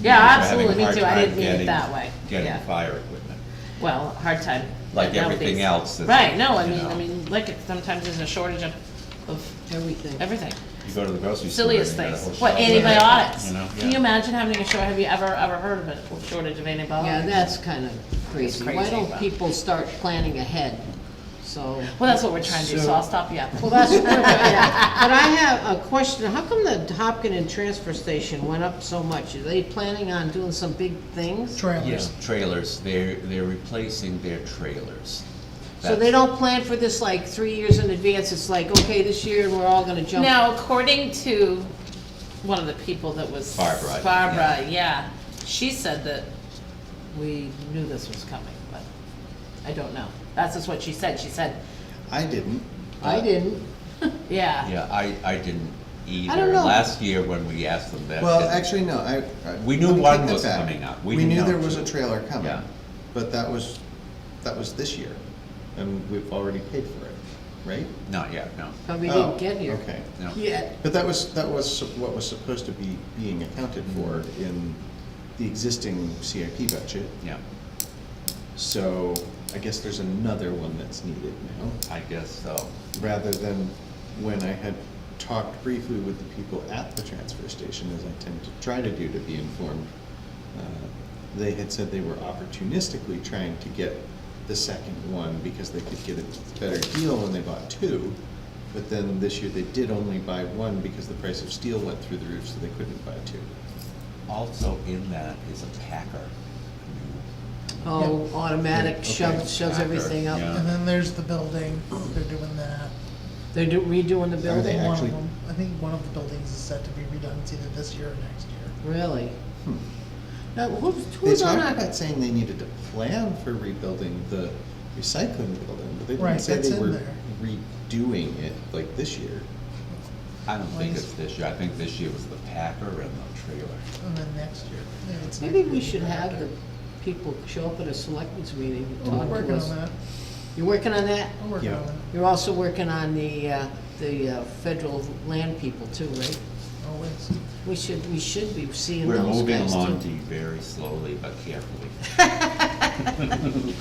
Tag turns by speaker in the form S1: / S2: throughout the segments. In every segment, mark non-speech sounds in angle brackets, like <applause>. S1: Yeah,
S2: having a
S1: absolutely, me
S2: hard
S1: too, I
S2: time
S1: didn't mean it
S2: getting-
S1: that way, yeah.
S2: Getting fire equipment.
S1: Well, hard time.
S2: Like
S1: but now
S2: everything
S1: these-
S2: else that's,
S1: Right, no, I
S2: you
S1: mean,
S2: know.
S1: I mean, look, it- sometimes there's a shortage of, of
S3: everything.
S1: everything.
S2: You go to the grocery store. and
S1: Silliest
S2: you got a
S1: things.
S2: whole
S1: What,
S2: shelf of it,
S1: antibiotics?
S2: you know?
S1: Can you
S2: Yeah.
S1: imagine having a short, have you ever, ever heard of a shortage of antibiotics?
S3: Yeah, that's kind of crazy. Why
S1: crazy,
S3: don't
S1: but-
S3: people start planning ahead? So,
S1: Well, that's what we're trying to do, so I'll stop you up.
S3: well, that's, what we're doing. but I have a question. How come the Hopkin and Transfer Station went up so much? Are they planning on doing some big things?
S4: trailers.
S2: Trailers, they're, they're replacing their trailers.
S3: So they don't plan for this like three years in advance? It's like, okay, this year, we're all gonna jump.
S1: Now, according to one of the people that was.
S2: Barbara, yeah.
S1: Barbara, yeah, she said that we knew this was coming, but I don't know. That's just what she said, she said,
S4: I didn't.
S3: I didn't.
S1: yeah,
S2: Uh, Yeah, I, I didn't either.
S3: know.
S2: Last year when we asked them that.
S4: Well,
S2: didn't-
S4: actually, no, I. I-
S2: We knew
S4: let me
S2: one
S4: take that
S2: was
S4: back.
S2: coming up. We
S4: We
S2: didn't
S4: knew
S2: know
S4: there was
S2: two.
S4: a trailer coming,
S2: Yeah.
S4: but that was, that was this year, and we've already paid for it, right?
S2: Not yet, no,
S3: But we
S4: Oh,
S3: didn't get here.
S4: Okay.
S2: no.
S3: Yet.
S4: But that was, that was what was supposed to be being accounted for in the existing CIP budget.
S2: Yeah,
S4: So I guess there's another one that's needed now,
S2: I guess so.
S4: rather than when I had talked briefly with the people at the transfer station, as I tend to try to do to be informed. uh, They had said they were opportunistically trying to get the second one because they could get a better deal when they bought two. But then this year they did only buy one because the price of steel went through the roof, so they couldn't buy two.
S2: Also in that is a packer.
S3: Oh, automatic
S4: Okay.
S3: shoves, shoves
S2: After,
S3: everything up.
S2: yeah.
S5: And then there's the building, they're doing that.
S3: They're do- redoing the
S4: Are they
S3: building?
S5: One of
S4: actually-
S5: them- I think one of the buildings is set to be redone, it's either this year or next year.
S3: Really?
S4: Hmm.
S3: Now, who's,
S4: They
S3: who's on
S4: talked
S3: our?
S4: about saying they needed to plan for rebuilding the recycling building, but they didn't
S5: Right,
S4: say
S5: that's
S4: they
S5: in
S4: were
S5: there.
S4: redoing it like this year.
S2: I don't think it's this year, I think this year was the packer and the trailer.
S5: And then next year. maybe it's
S3: Maybe
S5: next
S3: we
S5: year.
S3: should have the people show up at a selectmen's meeting and
S5: We're
S3: talk
S5: working
S3: to
S5: on that,
S3: us. You're working on that?
S5: we're working
S4: Yeah.
S5: on that.
S3: You're also working on the, uh, the uh, federal land people too, right?
S5: Always.
S3: We should, we should be seeing
S2: We're
S3: those
S2: moving
S3: guys
S2: along
S3: too.
S2: Dee, very slowly but carefully.
S3: <laughs>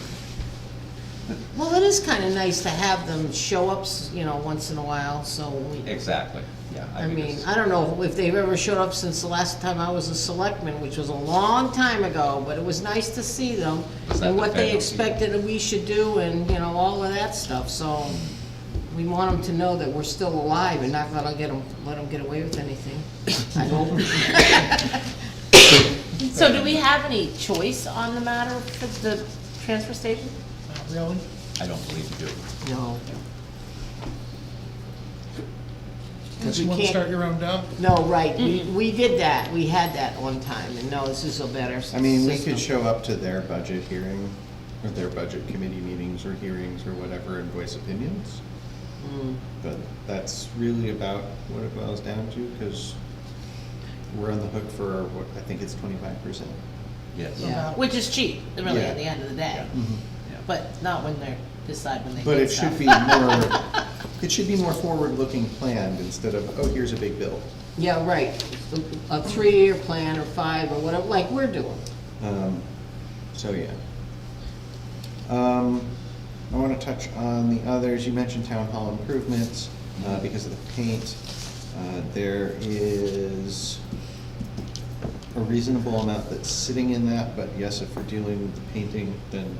S3: Well, it is kinda nice to have them show up, s- you know, once in a while, so we,
S2: Exactly, yeah.
S3: I
S2: think
S3: mean,
S2: it's-
S3: I don't know if they've ever showed up since the last time I was a selectman, which was a long time ago, but it was nice to see them
S2: Is that
S3: and
S2: the
S3: what they
S2: federal people?
S3: expected that we should do and, you know, all of that stuff, so we want them to know that we're still alive and not gonna get them, let them get away with anything. I
S4: <laughs>
S3: hope.
S1: So do we have any choice on the matter for the transfer station?
S5: Not really.
S2: I don't believe you do.
S3: No,
S5: Unless
S3: we
S5: you want to
S3: can't-
S5: start your own dump.
S3: no, right, we, we did that, we had that one time, and no, this is a better
S4: I mean, we
S3: system.
S4: could show up to their budget hearing, or their budget committee meetings or hearings or whatever and voice opinions.
S3: Mm.
S4: But that's really about what it boils down to, because we're on the hook for, what, I think it's twenty-five percent.
S2: Yes.
S3: Yeah.
S1: Which is cheap, really, at the
S4: Yeah.
S1: end of the day,
S2: Yeah.
S1: but not when they're, decide when they
S4: But
S1: get
S4: it should
S1: stuff.
S4: be more,
S1: <laughs>
S4: it should be more forward-looking planned instead of, oh, here's a big bill.
S3: Yeah, right, a a three-year plan or five or whatever, like we're doing.
S4: Um, So, yeah. Um, I want to touch on the others. You mentioned town hall improvements uh, because of the paint. Uh, There is a reasonable amount that's sitting in that, but yes, if we're dealing with the painting, then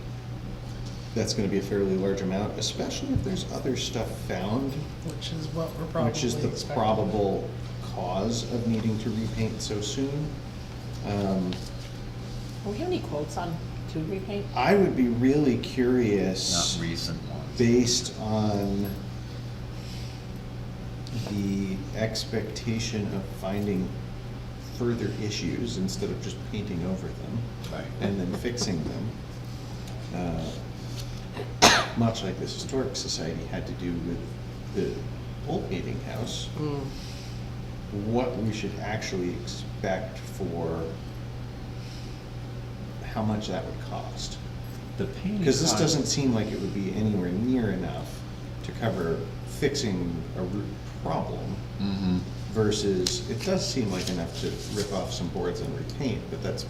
S4: that's going to be a fairly large amount, especially if there's other stuff found,
S5: Which is what we're probably
S4: which is
S5: expecting.
S4: the probable cause of needing to repaint so soon. Um,
S1: Do we have any quotes on tube repaint?
S4: I would be really
S2: Not
S4: curious,
S2: recent ones.
S4: based on the expectation of finding further issues instead of just painting over them
S2: Right.
S4: and then fixing them. Uh, Much like this historic society had to do with the old meeting house
S3: Mm.
S4: what we should actually expect for how much that would cost.
S2: The painting.
S4: Because this
S2: con-
S4: doesn't seem like it would be anywhere near enough to cover fixing a root problem
S2: Mhm.
S4: versus, it does seem like enough to rip off some boards and repaint, but that's